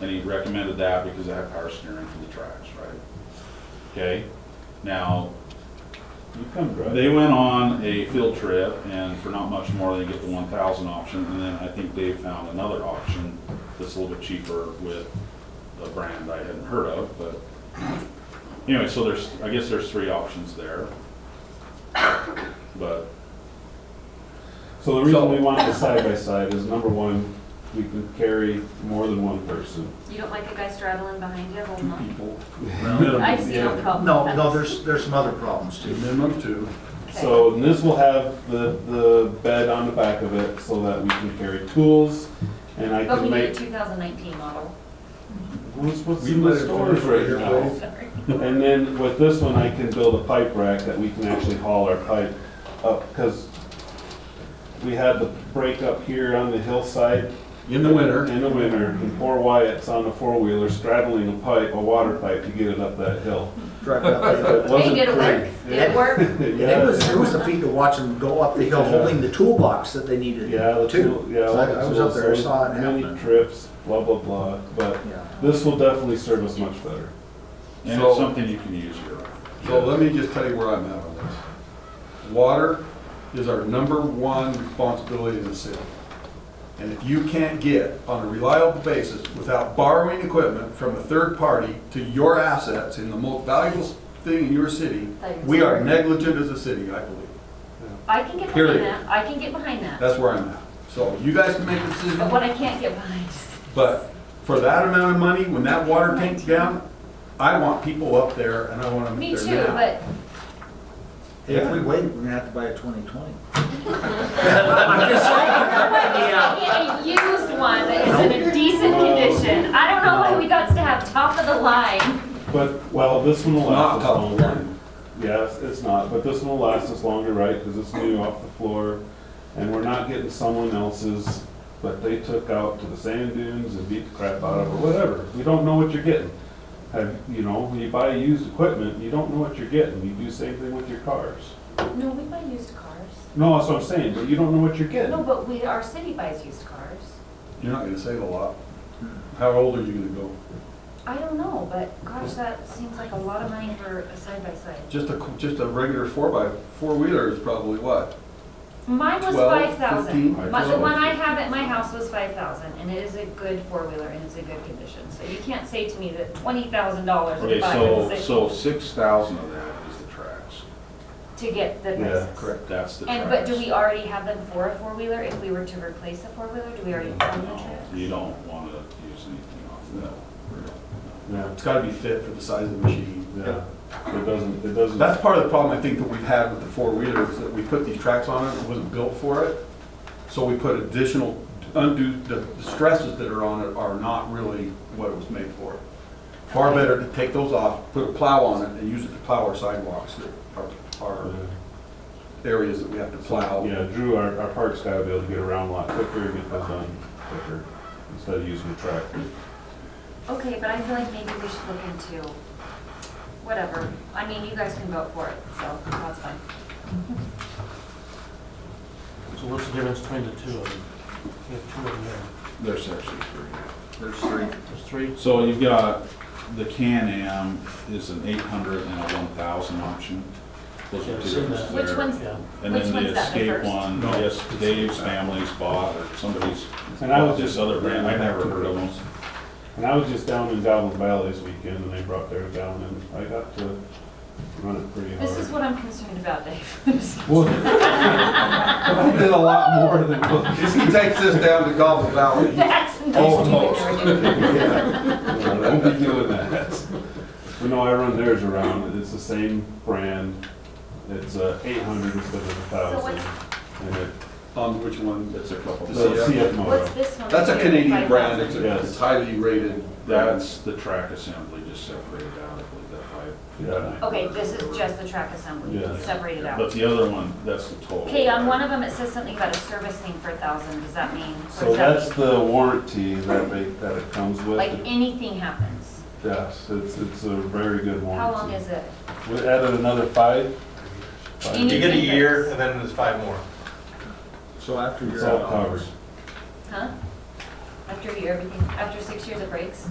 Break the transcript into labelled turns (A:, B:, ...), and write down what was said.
A: And he recommended that because I have power steering for the tracks, right? Okay, now,
B: You come correct.
A: they went on a field trip and for not much more, they get the one thousand option. And then I think Dave found another option that's a little bit cheaper with a brand I hadn't heard of, but anyway, so there's, I guess there's three options there. But
B: So the reason we wanted the side by side is number one, we could carry more than one person.
C: You don't like the guy straddling behind you
B: Two
C: holding on?
B: people.
C: I see no
B: Yeah.
C: problem.
D: No, no, there's, there's some other problems too.
E: Minimum two.
B: So and this will have the, the bed on the back of it so that we can carry tools and I
C: But we
B: can
C: need a
B: make,
C: 2019 model.
B: what's, what's
E: We
B: in the
E: let it
B: stores
E: finish
B: right
E: right here,
B: now?
E: please.
C: Sorry.
B: And then with this one, I can build a pipe rack that we can actually haul our pipe up, because we had the break up here on the hillside
E: In the winter,
B: in the winter, and poor Wyatt's on a four-wheeler straddling a pipe, a water pipe, to get it up that hill.
D: Drive up there.
B: It
C: Hey,
B: wasn't
C: did it work?
B: great.
C: Did it work?
D: It was,
B: Yeah,
D: it was a feat to watch them go up the hill holding the toolbox that they needed
B: yeah, the
D: too.
B: tool, yeah.
D: So I- I was up there, I
B: so
D: saw it
B: Many
D: happen.
B: trips, blah, blah, blah, but
D: Yeah.
B: this will definitely serve us much better.
A: And
E: So-
A: it's something you can use year round.
E: so let me just tell you where I'm at on this. Water is our number one responsibility in the city. And if you can't get on a reliable basis without borrowing equipment from a third party to your assets in the most valuable thing in your city, we are negligent as a city, I believe.
C: I can get behind
E: Period.
C: that. I can get behind that.
E: That's where I'm at. So you guys can make the decision.
C: But what I can't get behind is
E: But for that amount of money, when that water tank's down, I want people up there and I want them
C: Me
E: there
C: too,
E: now.
C: but
D: If we wait, we're gonna have to buy a twenty twenty.
C: I can't get a used one that is in a decent condition. I don't know why we got to have top of the line.
B: But, well, this one will
E: It's not
B: last us
E: top of the
B: longer.
E: line.
B: Yes, it's not, but this one will last us longer, right, because it's new off the floor, and we're not getting someone else's that they took out to the sand dunes and beat the crap out of, or whatever. You don't know what you're getting. Have, you know, when you buy used equipment, you don't know what you're getting. You do same thing with your cars.
C: No, we buy used cars.
B: No, that's what I'm saying, but you don't know what you're
C: No,
B: getting.
C: but we, our city buys used cars.
E: You're not gonna save a lot. How old are you gonna go?
C: I don't know, but gosh, that seems like a lot of money for a side-by-side.
E: Just a, just a regular four by, four wheeler is probably what?
C: Mine was
E: 12,
C: five thousand.
E: 15,
C: The
B: 12.
C: one I have at my house was five thousand, and it is a good four-wheeler, and it's in good condition. So you can't say to me that twenty thousand dollars
A: Okay,
C: to buy it
A: so,
C: is
A: so six thousand of that is the tracks.
C: a- to get
B: Yeah,
C: the prices.
A: That's the tracks.
C: And, but do we already have them for a four-wheeler? If we were to replace a four-wheeler, do we already own the
A: No,
C: tracks?
A: You don't wanna use anything off that. No.
B: Yeah,
E: It's gotta be fit for the size of the machine.
B: yeah. It doesn't, it doesn't.
E: That's part of the problem I think that we've had with the four wheelers, that we put these tracks on it, it wasn't built for it. So we put additional undue, the the stresses that are on it are not really what it was made for. Far better to take those off, put a plow on it and use it to plow our sidewalks, our, our areas that we have to
C: Oh.
E: plow.
B: Yeah, Drew, our, our park's gotta be able to get around a lot quicker, get that done quicker, instead of using a tractor.
C: Okay, but I feel like maybe we should look into, whatever. I mean, you guys can vote for it, so that's fine.
F: So what's the difference between the two of them? You have two of them there.
A: There's actually three.
D: There's three.
F: There's three.
A: So you've got, the Can-Am is an eight hundred and a one thousand option. Those
F: Yeah,
A: are
F: I've
A: two
F: seen
A: different
F: that.
C: Which
A: there.
C: one's,
F: Yeah.
A: And
C: which
A: then
C: one's
A: the
C: that, the
A: escape
C: first?
A: one,
E: No.
A: yes, Dave's family's bought, or somebody's,
B: And I
A: bought
B: was
A: this
B: just,
A: other brand, I've never heard of them.
B: and I was just down in Goblin Valley this weekend, and they brought theirs down, and I got to run it pretty hard.
C: This is what I'm concerned about, Dave.
B: Well,
E: I did a lot more than. If he takes this down to Gobble Valley, he-
C: That's
E: Almost.
C: nice.
B: I won't be doing that. But no, I run theirs around, and it's the same brand, it's uh eight hundred instead of a thousand. And it,
E: on Um, which one?
A: It's a couple.
E: The
B: the
E: CF?
B: CF
C: What's
B: motor,
C: this one?
E: That's a
C: here?
E: Canadian
C: Five
E: brand, it's
C: thousand.
E: a- it's highly rated.
A: That's the track assembly, just separated out, I believe, that five.
B: Yeah.
C: Okay, this is just the track assembly,
B: Yeah.
C: separated
A: But
C: out.
A: the other one, that's the total.
C: Okay, on one of them, it says something about a service thing for a thousand, does that mean? what
B: so
C: does that
B: that's
C: mean?
B: the warranty that they, that it comes with.
C: Like anything happens,
B: Yes, it's, it's a very good warranty.
C: how long is it?
B: We added another five. Five.
C: Any-
G: You get a year, and then there's five more.
D: So after
B: It's
D: you're
B: all
D: out.
B: covered.
C: Huh? After you, everything, after six years it breaks?